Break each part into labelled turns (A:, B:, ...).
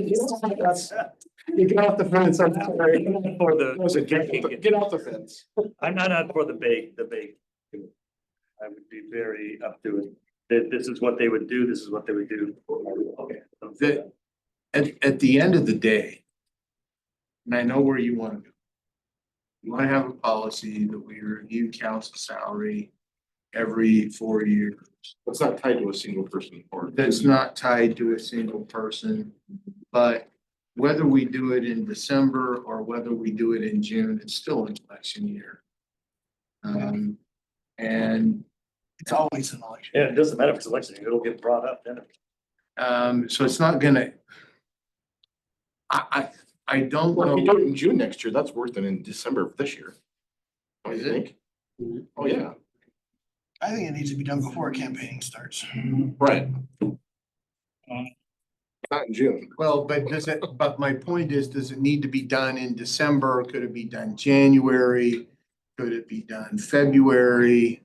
A: That's- You get off the fence, I'm sorry.
B: For the-
A: Was it get- Get off the fence.
B: I'm not out for the bait, the bait. I would be very up to it. That this is what they would do, this is what they would do. Okay.
C: The- At, at the end of the day. And I know where you wanna go. You wanna have a policy that we review council salary every four years.
D: It's not tied to a single person or.
C: that's not tied to a single person. But whether we do it in December or whether we do it in June, it's still an election year. Um, and
E: It's always an election.
B: Yeah, it doesn't matter if it's election, it'll get brought up then.
C: um, so it's not gonna. I I I don't
D: Well, if you do
C: know,
D: it in June next year, that's worse than in December of this year. Don't you
C: Is it?
D: think? Oh, yeah,
E: I think it needs to be done before campaigning starts.
D: right. Not in June.
C: well, but does it, but my point is, does it need to be done in December? Could it be done January? Could it be done February?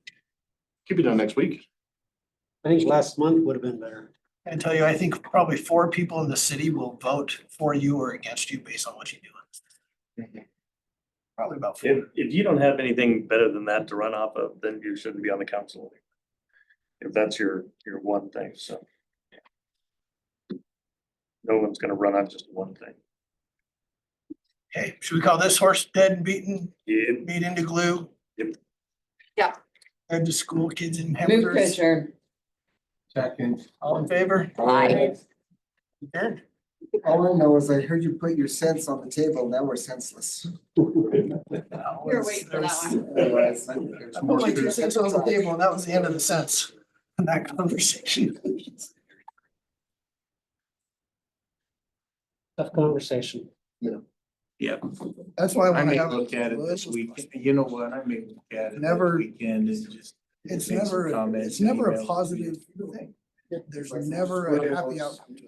D: Could be done next week.
F: I think last month would have been better.
E: I tell you, I think probably four people in the city will vote for you or against you based on what you do. Probably about four.
B: If, if you don't have anything better than that to run off of, then you shouldn't be on the council. If that's your, your one thing, so. No one's gonna run on just one thing.
E: Okay, should we call this horse dead and beaten,
B: Yeah,
E: beat into glue?
B: Yep.
G: Yeah.
E: Head to school, kids in
G: Move to
E: hamsters,
G: adjourn.
C: Second,
E: all in favor?
G: Aye.
E: Adjourned.
H: All I know is I heard you put your cents on the table, now we're senseless.
G: We were waiting for that one.
H: Otherwise, I think there's
E: I
H: more
E: put my
H: to
E: two
H: it.
E: cents on the table, and that was the end of the sense in that conversation.
F: Tough conversation.
E: That's why I
C: I
E: wanna
C: may
E: have.
C: look at it this weekend, you know what, I may look at it this
E: Never-
C: weekend and just.
E: It's
C: make some
E: never,
C: comments
E: it's
C: and
E: never a
C: email.
E: positive thing. There's never a happy outcome to it.